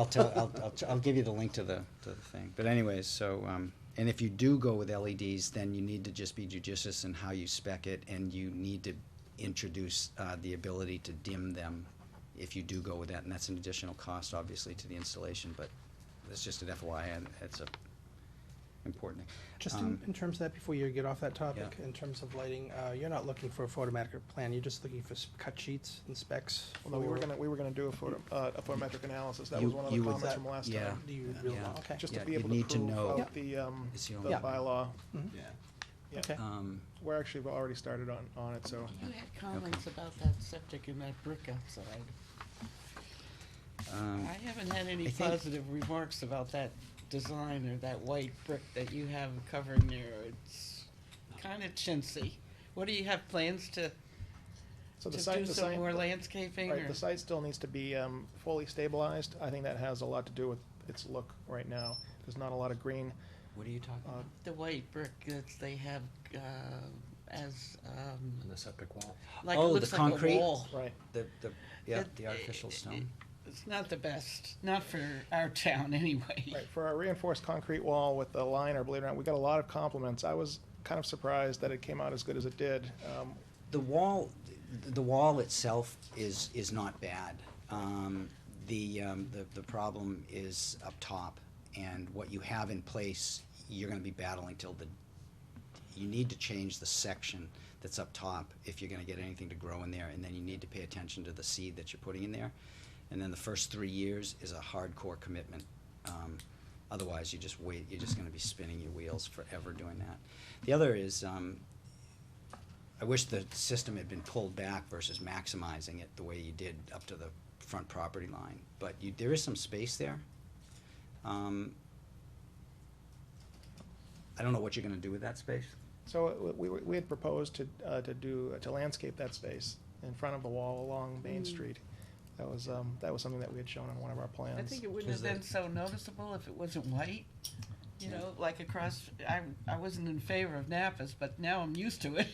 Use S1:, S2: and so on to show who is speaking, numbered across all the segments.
S1: I'll tell, I'll, I'll, I'll give you the link to the, to the thing, but anyways, so, um, and if you do go with LEDs, then you need to just be judicious in how you spec it, and you need to introduce, uh, the ability to dim them if you do go with that, and that's an additional cost, obviously, to the installation, but that's just an FYI, and it's a important thing.
S2: Just in,
S1: Um,
S2: in terms of that, before you get off that topic,
S1: Yeah.
S2: in terms of lighting, uh, you're not looking for a photometric plan, you're just looking for s- cut sheets and specs?
S3: Although we were
S2: for-
S3: gonna, we were gonna do a photo, uh, a photometric analysis, that
S1: You-
S3: was one of the
S1: you would-
S3: comments from last
S1: yeah.
S3: time.
S2: Do you really,
S1: yeah.
S2: okay,
S3: Just
S1: Yeah,
S3: to be
S1: you'd
S3: able to
S1: need to
S3: prove
S1: know-
S2: Yeah.
S3: out the, um,
S1: It's
S3: the
S1: the only-
S3: bylaw.
S4: Yeah.
S3: Yeah,
S2: okay.
S1: Um,
S3: we're actually already started on, on it, so.
S4: You had comments about that septic and that brick outside.
S1: um,
S4: I haven't had any
S1: I think-
S4: positive remarks about that design or that white brick that you have covering there. It's kinda chintzy. What, do you have plans to,
S3: So
S4: to
S3: the
S4: do
S3: site, the
S4: some
S3: site,
S4: more landscaping
S3: right,
S4: or?
S3: the site still needs to be, um, fully stabilized. I think that has a lot to do with its look right now. There's not a lot of green,
S1: what are you talking
S3: uh,
S1: about?
S4: The white brick that they have, uh, as, um,
S5: on the septic wall.
S4: like, it
S1: Oh, the
S4: looks like a
S1: concrete?
S4: wall.
S3: right?
S1: The, the, yeah,
S4: It-
S1: the artificial stone.
S4: It's not the best, not for our town anyway.
S3: Right, for our reinforced concrete wall with the liner, believe it or not, we got a lot of compliments. I was kind of surprised that it came out as good as it did. Um,
S1: The wall, th- the wall itself is, is not bad. Um, the, um, the, the problem is up top, and what you have in place, you're gonna be battling till the, you need to change the section that's up top if you're gonna get anything to grow in there, and then you need to pay attention to the seed that you're putting in there. And then the first three years is a hardcore commitment. Um, otherwise, you just wait, you're just gonna be spinning your wheels forever doing that. The other is, um, I wish the system had been pulled back versus maximizing it the way you did up to the front property line. But you, there is some space there. Um, I don't know what you're gonna do with that space.
S3: So uh, we, we we had proposed to, uh, to do, to landscape that space in front of the wall along Main Street. That was, um, that was something that we had shown on one of our plans.
S4: Mm. I think it wouldn't have
S1: Is
S4: been
S1: that-
S4: so noticeable if it wasn't white. You
S1: Yeah.
S4: know, like across, I, I wasn't in favor of Napa's, but now I'm used to it.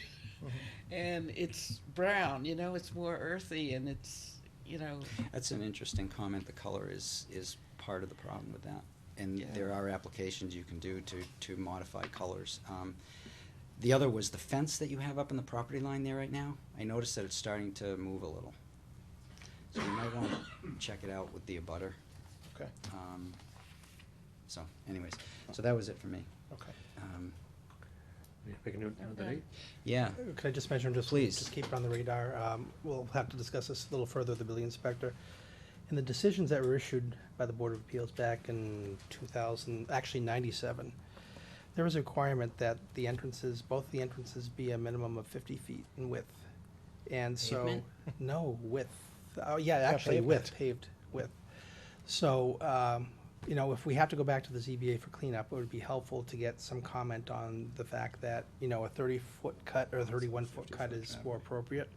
S4: And it's brown, you know, it's more earthy and it's, you know,
S1: That's an interesting comment. The color is, is part of the problem with that. And
S4: Yeah.
S1: there are applications you can do to, to modify colors. Um, the other was the fence that you have up in the property line there right now. I noticed that it's starting to move a little. So you might wanna check it out with the abutter.
S3: Okay,
S1: Um, so anyways, so that was it for me.
S3: okay.
S1: Um,
S5: Yeah, Pick a new, another
S4: Okay.
S5: date.
S1: yeah,
S2: Could I just mention, just,
S1: Please.
S2: just keep it on the radar, um, we'll have to discuss this a little further with the building inspector. And the decisions that were issued by the Board of Appeals back in two thousand, actually ninety-seven, there was a requirement that the entrances, both the entrances be a minimum of fifty feet in width. And so,
S1: Pavement?
S2: no, width, oh, yeah, actually width, paved width. So, um, you know, if we have to go back to the ZBA for cleanup, it would be helpful to get some comment on the fact that, you know, a thirty-foot cut or thirty-one foot cut
S1: 50-foot
S2: is
S1: cut.
S2: more appropriate.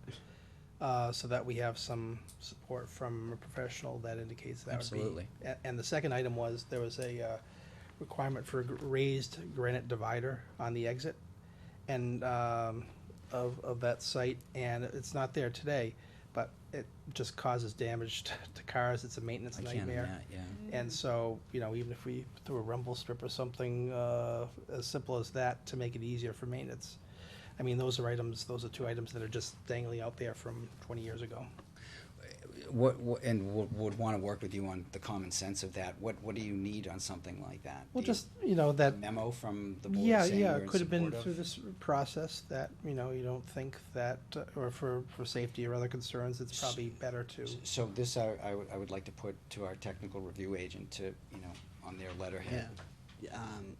S2: Uh, so that we have some support from a professional that indicates that would be.
S1: Absolutely.
S2: A- And the second item was, there was a, uh, requirement for a gr- raised granite divider on the exit and, um, of, of that site, and it's not there today, but it just causes damage to- to cars, it's a maintenance
S1: I
S2: nightmare.
S1: can, yeah, yeah.
S2: And so, you know, even if we threw a rumble strip or something, uh, as simple as that to make it easier for maintenance. I mean, those are items, those are two items that are just dangling out there from twenty years ago.
S1: What, what and would, would want to work with you on the common sense of that. What what do you need on something like that?
S2: Well,
S1: Do you-
S2: just, you know, that,
S1: a memo from the board
S2: yeah,
S1: saying
S2: yeah,
S1: you're
S2: it
S1: in
S2: could have been
S1: support of-
S2: through this process that, you know, you don't think that, uh, or for, for safety or other concerns, it's
S1: S-
S2: probably better to.
S1: So this I, I would I would like to put to our technical review agent to you know on their letterhead.
S6: Yeah, um,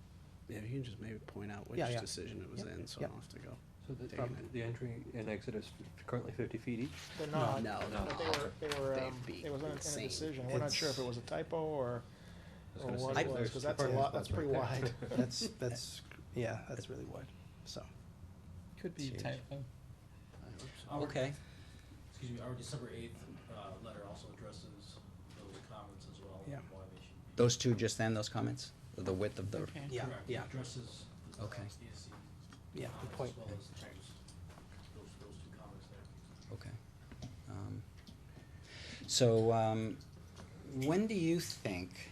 S6: yeah, you can just maybe point out which
S2: Yeah, yeah.
S6: decision it was
S2: Yep,
S6: in, so I
S2: yep.
S6: don't have to go.
S5: So the, um,
S6: Taking it.
S5: the entry and exit is currently fifty feet each?
S3: They're not,
S6: no, no.
S3: but they were, they were, um,
S4: They'd be
S3: it was in in a
S4: insane.
S3: decision. We're not sure if it was a typo or,
S5: was
S3: or
S5: gonna
S3: what
S5: say,
S3: it was,
S5: there's
S3: Oh, because that's a lot, that's pretty wide.
S2: That's, that's, yeah, that's really wide, so.
S4: could be a
S1: Huge.
S4: typo.
S7: Our-
S1: Okay.
S7: Excuse me, our December eighth, uh, letter also addresses those comments as well. and
S2: Yeah.
S7: Why they should be.
S1: Those two just then those comments the width of the
S4: Okay.
S2: Yeah,
S7: Correct, it
S2: yeah,
S7: Addresses the
S1: Okay.
S7: CSC
S2: yeah, good
S7: comments
S2: point.
S7: as well as those, those, those two comments there.
S1: okay. Um, so um, when do you think